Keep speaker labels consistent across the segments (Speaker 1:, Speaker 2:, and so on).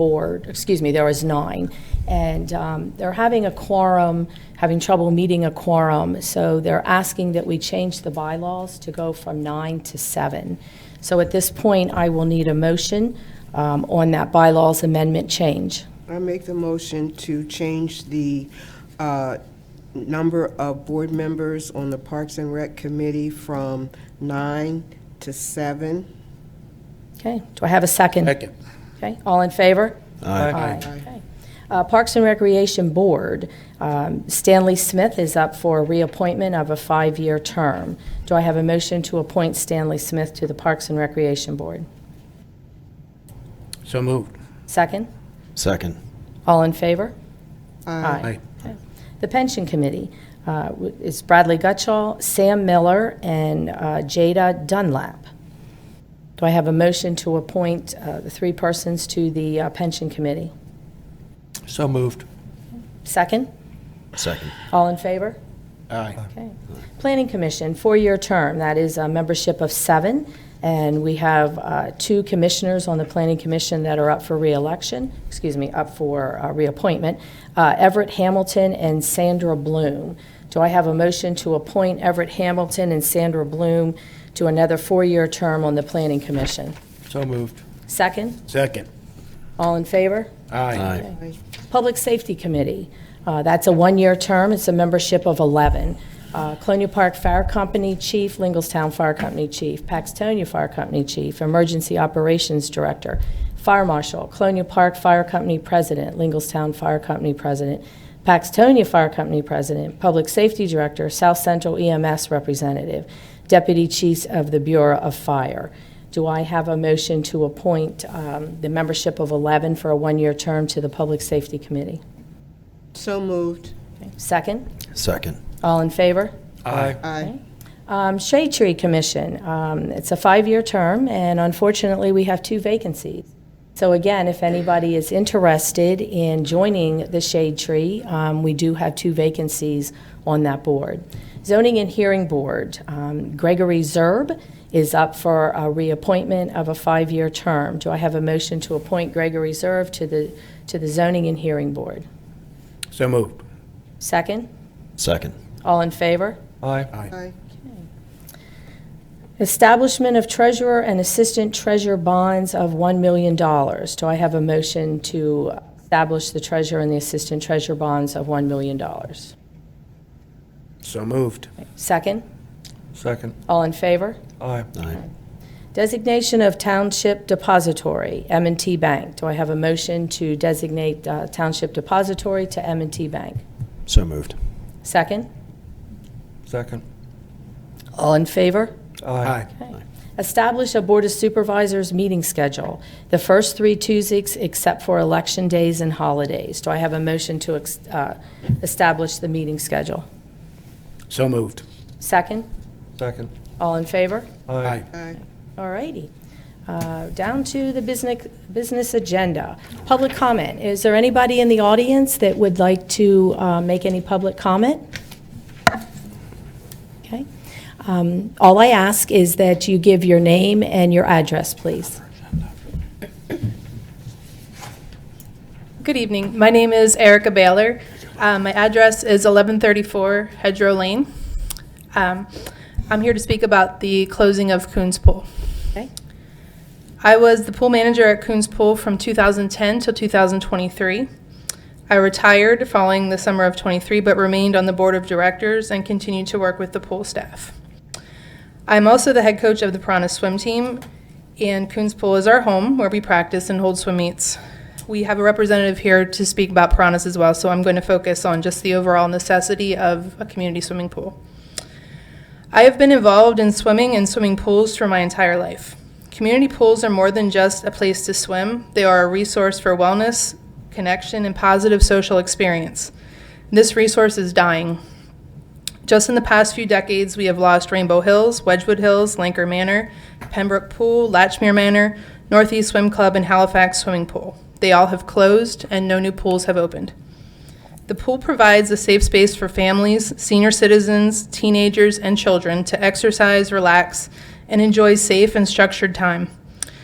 Speaker 1: board, excuse me, there was nine, and um, they're having a quorum, having trouble meeting a quorum, so they're asking that we change the bylaws to go from nine to seven. So at this point, I will need a motion um, on that bylaws amendment change.
Speaker 2: I make the motion to change the uh, number of board members on the Parks and Rec Committee from nine to seven.
Speaker 1: Okay, do I have a second?
Speaker 3: Second.
Speaker 1: Okay, all in favor?
Speaker 3: Aye.
Speaker 1: Okay. Uh, Parks and Recreation Board, um, Stanley Smith is up for reappointment of a five-year term. Do I have a motion to appoint Stanley Smith to the Parks and Recreation Board?
Speaker 3: So moved.
Speaker 1: Second?
Speaker 4: Second.
Speaker 1: All in favor?
Speaker 3: Aye.
Speaker 1: Okay. The Pension Committee uh, w- is Bradley Gutschall, Sam Miller, and uh, Jada Dunlap. Do I have a motion to appoint uh, the three persons to the uh, Pension Committee?
Speaker 3: So moved.
Speaker 1: Second?
Speaker 4: Second.
Speaker 1: All in favor?
Speaker 3: Aye.
Speaker 1: Okay. Planning Commission, four-year term, that is a membership of seven, and we have uh, two commissioners on the Planning Commission that are up for reelection, excuse me, up for uh, reappointment, uh, Everett Hamilton and Sandra Bloom. Do I have a motion to appoint Everett Hamilton and Sandra Bloom to another four-year term on the Planning Commission?
Speaker 3: So moved.
Speaker 1: Second?
Speaker 3: Second.
Speaker 1: All in favor?
Speaker 3: Aye.
Speaker 4: Aye.
Speaker 1: Public Safety Committee, Uh, that's a one-year term, it's a membership of 11. Uh, Colonial Park Fire Company Chief, Lingelstown Fire Company Chief, Paxtonia Fire Company Chief, Emergency Operations Director, Fire Marshal, Colonial Park Fire Company President, Lingelstown Fire Company President, Paxtonia Fire Company President, Public Safety Director, South Central EMS Representative, Deputy Chiefs of the Bureau of Fire. Do I have a motion to appoint um, the membership of 11 for a one-year term to the Public Safety Committee?
Speaker 2: So moved.
Speaker 1: Second?
Speaker 4: Second.
Speaker 1: All in favor?
Speaker 3: Aye.
Speaker 2: Aye.
Speaker 1: Um, Shade Tree Commission, um, it's a five-year term, and unfortunately, we have two vacancies. So again, if anybody is interested in joining the Shade Tree, um, we do have two vacancies on that board. Zoning and Hearing Board, um, Gregory Zerb is up for a reappointment of a five-year term. Do I have a motion to appoint Gregory Zerb to the, to the Zoning and Hearing Board?
Speaker 3: So moved.
Speaker 1: Second?
Speaker 4: Second.
Speaker 1: All in favor?
Speaker 3: Aye.
Speaker 2: Aye.
Speaker 1: Establishment of treasurer and assistant treasurer bonds of $1 million. Do I have a motion to establish the treasurer and the assistant treasurer bonds of $1 million?
Speaker 3: So moved.
Speaker 1: Second?
Speaker 3: Second.
Speaker 1: All in favor?
Speaker 3: Aye.
Speaker 4: Aye.
Speaker 1: Designation of Township Depository, m and T Bank. Do I have a motion to designate uh, Township Depository to m and T Bank?
Speaker 4: So moved.
Speaker 1: Second?
Speaker 3: Second.
Speaker 1: All in favor?
Speaker 3: Aye.
Speaker 1: Establish a Board of Supervisors meeting schedule, the first three Tuesdays except for election days and holidays. Do I have a motion to ex- uh, establish the meeting schedule?
Speaker 3: So moved.
Speaker 1: Second?
Speaker 3: Second.
Speaker 1: All in favor?
Speaker 3: Aye.
Speaker 2: Aye.
Speaker 1: All righty. Uh, Down to the business, business agenda. Public comment. Is there anybody in the audience that would like to uh, make any public comment? Okay. Um, All I ask is that you give your name and your address, please.
Speaker 5: Good evening. My name is Erica Baylor. Uh, My address is 1134 Hedgerow Lane. Um, I'm here to speak about the closing of Coons Pool.
Speaker 1: Okay?
Speaker 5: I was the pool manager at Coons Pool from 2010 till 2023. I retired following the summer of 23, but remained on the board of directors and continued to work with the pool staff. I'm also the head coach of the Piranha Swim Team, and Coons Pool is our home where we practice and hold swim meets. We have a representative here to speak about piranhas as well, so I'm going to focus on just the overall necessity of a community swimming pool. I have been involved in swimming and swimming pools for my entire life. Community pools are more than just a place to swim, they are a resource for wellness, connection, and positive social experience. This resource is dying. Just in the past few decades, we have lost Rainbow Hills, Wedgewood Hills, Lanker Manor, Pembroke Pool, Latchmere Manor, Northeast Swim Club, and Halifax Swimming Pool. They all have closed, and no new pools have opened. The pool provides a safe space for families, senior citizens, teenagers, and children to exercise, relax, and enjoy safe and structured time.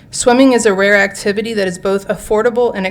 Speaker 5: Swimming is a rare activity that is both affordable and